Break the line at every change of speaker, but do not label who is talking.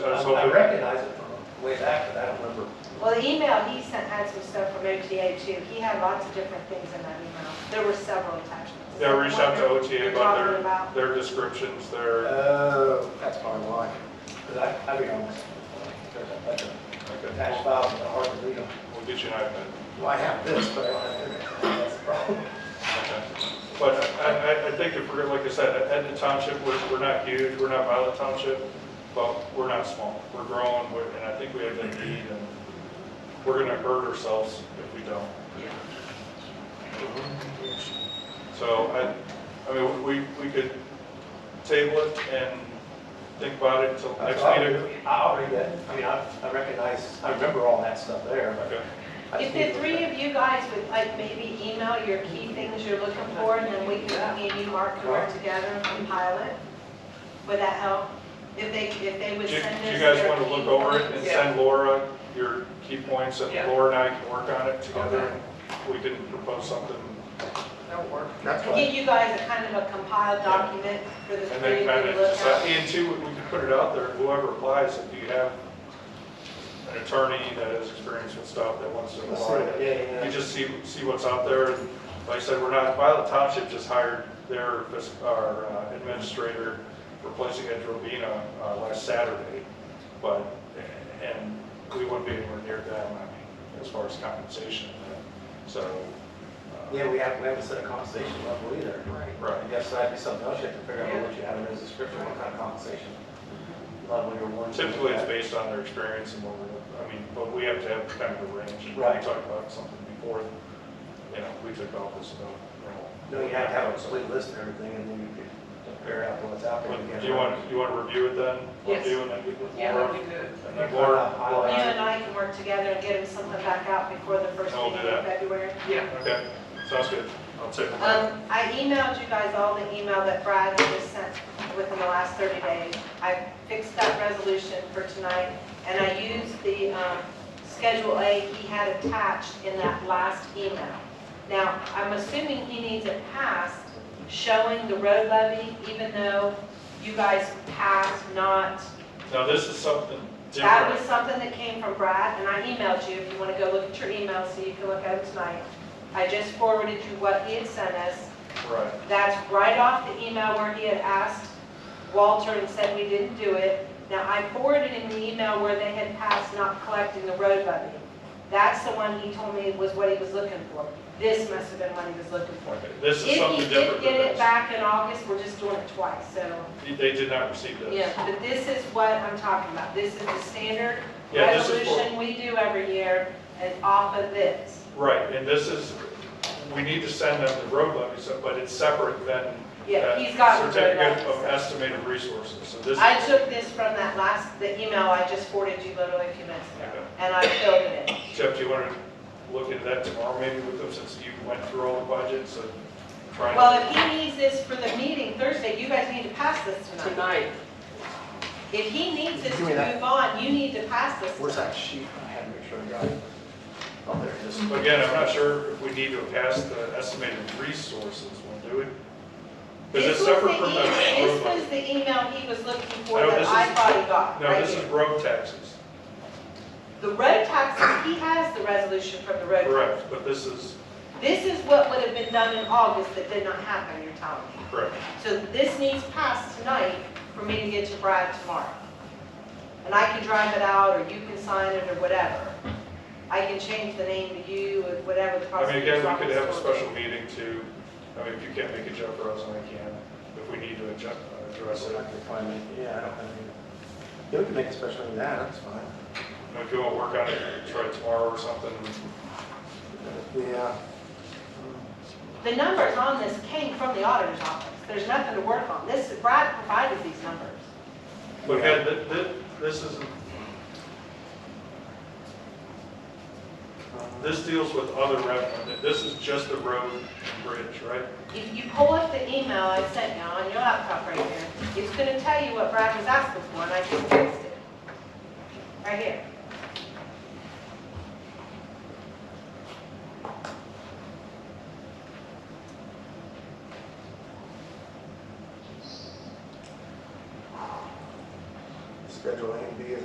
So I recognize it from way back, but I don't remember.
Well, the email he sent had some stuff from OTA too. He had lots of different things in that email. There were several attachments.
They'll reach out to OTA
You're talking
about
about-
their, their descriptions, their,
Oh, that's probably why. Because I, I be honest, there's a bunch of
okay,
attached files that are hard to read
we'll-
on.
we'll get you an iPad.
Well, I have this, but I don't have internet. That's the problem.
Okay. But I, I, I think if we're, like I said, Etna Township, we're, we're not huge, we're not Violet Township, but we're not small. We're growing, we're- and I think we have the need, and we're gonna hurt ourselves if we don't. So I, I mean, we, we could table it and think about it until next meeting.
I'll read that. I mean, I, I recognize, I remember all that stuff there, but.
Okay.
I just
If
need to
the
look
three
back.
of you guys would like maybe email your key things you're looking for, and then we can, me and you, Mark, can work together and compile it. Would that help? If they, if they
Do
would
do
send us
you guys
their
want to
key
look over it and
points.
send Laura your key points, and
Yeah.
Laura and I can work on it together? We can propose something,
That'll work.
That's
Give
why,
you guys a kind of a compiled document for the
and
three
then
of
kind
you
of,
to look
decide.
at.
and two, we we can put it out there, whoever applies, if you have an attorney that has experience with stuff that wants to
Let's see what- yeah, yeah, yeah.
apply, you just see, see what's out there. And Like I said, we're not, Violet Township just hired their, fis- our uh, administrator replacing Ed Robina uh, last Saturday, but, and we wouldn't be anywhere near them, I mean, as far as compensation, uh, so. uh,
yeah, we have, we haven't set a compensation level either.
Right.
Right.
I guess that'd be something else you have to figure out what you have in this description, what kind of compensation level you're wanting. to
Typically, it's
look at.
based on their experience and what we're, I mean, but we have to have kind of a range. We
Right.
talked about something before, you know, we took office about, you know.
No, you have to have a complete list of everything and then you can figure out what's out there.
But Do you want, you want to review it then?
Yes.
Review and then we can.
Yeah, that'd be good.
And then Laura,
You
Laura-
and I can work together and get them something back out before the first
I'll do
meeting in
that.
February.
Yeah.
okay, sounds good. I'll take it.
Um, I emailed you guys all the email that Brad had just sent within the last 30 days. I fixed that resolution for tonight, and I used the um, Schedule A he had attached in that last email. Now, I'm assuming he needs it passed, showing the road levy, even though you guys passed not.
Now, this is something
That was
different.
something that came from Brad, and I emailed you, if you want to go look at your email, so you can look at it tonight. I just forwarded you what he had sent us,
Right,
that's right off the email where he had asked Walter and said we didn't do it. Now, I forwarded him the email where they had passed not collecting the road levy. That's the one he told me was what he was looking for. This must have been what he was looking for.
okay, this is
If he
something different
did get it
than
back in August, we're just doing it twice, so,
this. They did not receive this.
yeah. But this is what I'm talking about. This is the standard
Yeah, this is for-
resolution we do every year, and off of this.
Right, and this is, we need to send them the road levy, so- but it's separate than.
Yeah,
that
he's got the road levy.
Certificate of estimated resources, so this.
I took this from that last, the email I just forwarded you literally a few minutes ago, and I filled it in.
Jeff, do you want to look into that tomorrow maybe with them, since you went through all the budgets and trying?
Well, if he needs this for the meeting Thursday, you guys need to pass this tonight.
Tonight,
If he needs this to
Give me that.
move on, you need to pass this.
Where's
tonight.
that sheet? I had to make sure I got it. Oh, there it is.
Again, I'm not sure if we need to pass the estimated resources one, do we? Because it's
This was
separate
the
from the
email- This
road
was
levy.
the email he was looking for
No,
that
this
I
is-
thought he got,
No,
right
this is
here.
road taxes,
The road taxes, he has the resolution from the road.
correct, but this is,
This is what would have been done in August that did not happen, you're telling me.
correct.
So this needs passed tonight for me to get to Brad tomorrow. And I can drive it out, or you can sign it, or whatever. I can change the name to you, or whatever the
I mean, again,
prosecutor's
we could have a
office wants.
special meeting to, I mean, if you can't make a jump for us, I can, if we need to adjust, address
So
it.
I can find it. Yeah, I don't have it. Yeah, we can make a special on that, that's fine.
You know, If you want to work on it, try it tomorrow or something,
Yeah.
The numbers on this came from the auditor's office. There's nothing to work on. This, Brad provided these numbers.
but again, th- th- this is,
Mm, uh,
this deals with other revenue, this is just the road and bridge, right?
If you pull up the email I sent you on your laptop right here, it's gonna tell you what Brad was asking for, and I just fixed it. Right here.
Schedule A.